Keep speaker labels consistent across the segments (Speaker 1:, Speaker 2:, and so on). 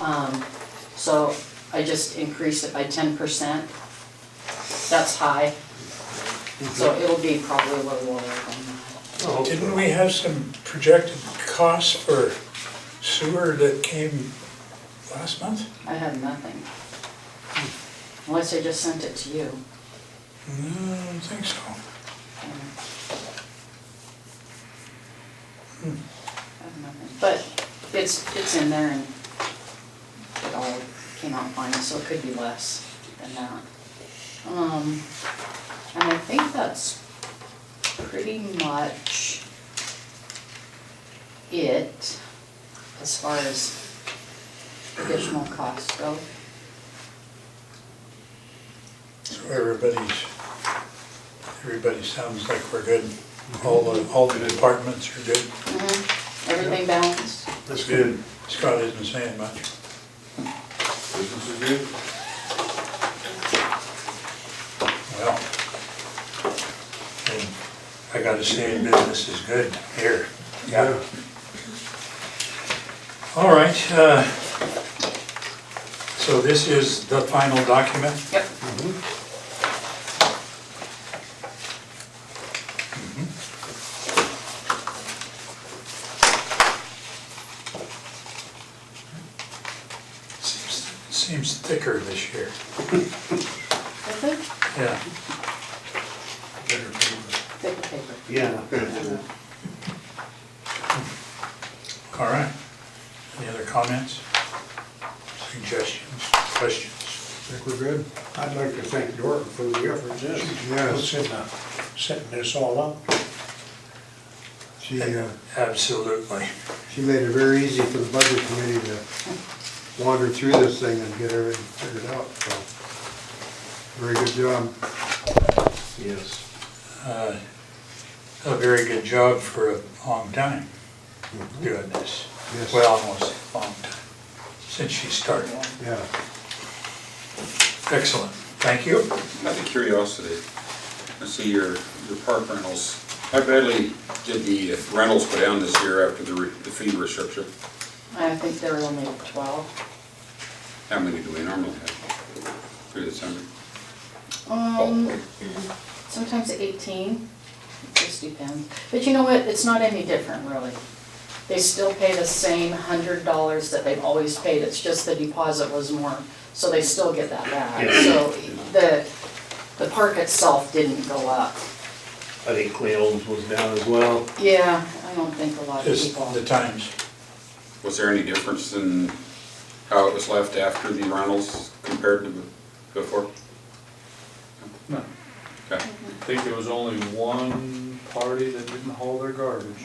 Speaker 1: Um, so I just increased it by ten percent. That's high, so it'll be probably a little lower than that.
Speaker 2: Oh,
Speaker 3: Didn't we have some projected costs for sewer that came last month?
Speaker 1: I had nothing. Unless I just sent it to you.
Speaker 3: No, I don't think so.
Speaker 1: um, I have nothing, but it's, it's in there and it all came out fine, so it could be less than that. Um, and I think that's pretty much it as far as additional costs go.
Speaker 3: So everybody's, everybody sounds like we're good. All the, all the departments are good.
Speaker 1: Mm-hmm. Everything balanced?
Speaker 2: That's good.
Speaker 3: Scott isn't saying much.
Speaker 2: Business is good.
Speaker 3: Well, and I gotta say, business is good here. Yeah. All right, uh, so this is the final document?
Speaker 1: Yep.
Speaker 3: Mm-hmm. Seems seems thicker this year.
Speaker 1: Thicker,
Speaker 3: Yeah.
Speaker 1: thicker paper.
Speaker 2: Yeah.
Speaker 3: All right. Any other comments, suggestions, questions?
Speaker 4: Think we're good? I'd like to thank Dorton for the effort, yes.
Speaker 2: Yes.
Speaker 4: Setting, uh, setting this all up.
Speaker 5: She, uh,
Speaker 3: Absolutely.
Speaker 5: she made it very easy for the budget committee to wander through this thing and get everything figured out, so. Very good job.
Speaker 2: Yes.
Speaker 3: Uh, A very good job for a long time doing this.
Speaker 5: Mm-hmm. Yes.
Speaker 3: Well, almost a long time, since she started.
Speaker 5: Yeah.
Speaker 3: Excellent. Thank you.
Speaker 6: Out of curiosity, I see your, your park rentals. How badly did the uh, rentals go down this year after the, re- the fee restriction?
Speaker 1: I think there were only twelve.
Speaker 6: How many do we normally have through December?
Speaker 3: Oh.
Speaker 1: Um, sometimes eighteen, it just depends. But you know what, it's not any different really. They still pay the same hundred dollars that they've always paid, it's just the deposit was more, so they still get that back.
Speaker 2: Yeah.
Speaker 1: So the, the park itself didn't go up.
Speaker 2: I think Cleone's was down as well.
Speaker 1: Yeah, I don't think a lot of
Speaker 3: Just
Speaker 1: people.
Speaker 3: the times.
Speaker 6: Was there any difference in how it was left after the rentals compared to before?
Speaker 7: No.
Speaker 6: Okay.
Speaker 7: I think there was only one party that didn't haul their garbage.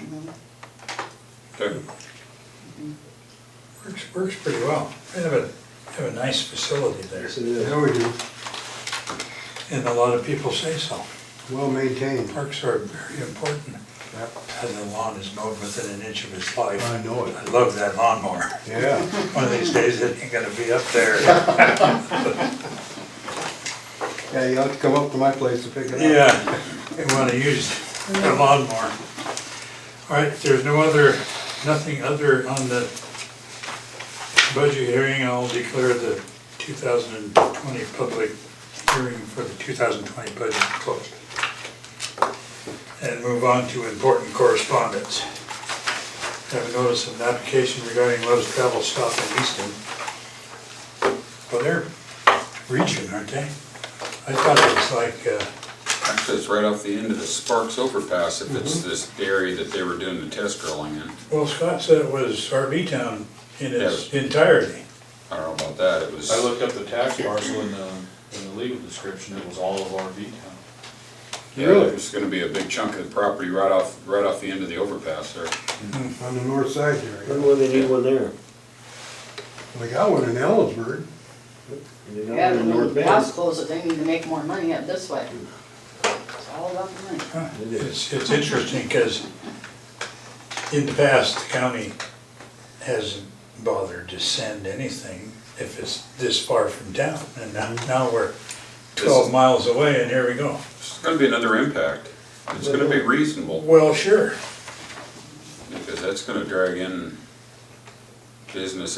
Speaker 6: Okay.
Speaker 3: Works, works pretty well. We have a, have a nice facility there,
Speaker 2: Yes, it is.
Speaker 5: Yeah, we do.
Speaker 3: and a lot of people say so.
Speaker 5: Well maintained.
Speaker 3: Parks are very important.
Speaker 5: Yep.
Speaker 3: And the lawn is mowed within an inch of its life.
Speaker 5: I know it.
Speaker 3: I love that lawnmower.
Speaker 5: Yeah.
Speaker 3: One of these days, it ain't gonna be up there.
Speaker 5: Yeah, you'll have to come up to my place to pick it up.
Speaker 3: Yeah, they wanna use the lawnmower. All right, if there's no other, nothing other on the budget hearing, I'll declare the 2020 public hearing for the 2020 budget closed. And move on to important correspondence. Have a notice of an application regarding Love's Travel Stop in Easton. Well, they're region, aren't they? I thought it was like, uh,
Speaker 6: Actually, it's right off the end of the Sparks overpass, if it's
Speaker 7: Mm-hmm.
Speaker 6: this area that they were doing the test drilling in.
Speaker 3: Well, Scott said it was RV town in its
Speaker 6: Yeah.
Speaker 3: entirety.
Speaker 6: I don't know about that, it was.
Speaker 7: I looked up the tax parcel in the, in the legal description, it was all of RV town.
Speaker 6: Yeah,
Speaker 5: Really?
Speaker 6: There's gonna be a big chunk of the property right off, right off the end of the overpass there.
Speaker 5: On the north side here.
Speaker 2: Remember when they did one there?
Speaker 5: They got one in Ellsburg.
Speaker 2: They did one
Speaker 1: Yeah,
Speaker 2: in
Speaker 1: and when
Speaker 2: North
Speaker 1: the
Speaker 2: Bend.
Speaker 1: house closes, they need to make more money up this way. It's all about the money.
Speaker 3: Huh, It's, it's interesting because in the past, the county hasn't bothered to send anything if it's this far from town. And now, now we're twelve miles away and here we go.
Speaker 6: It's gonna be another impact. It's gonna be reasonable,
Speaker 3: Well, sure.
Speaker 6: because that's gonna drag in business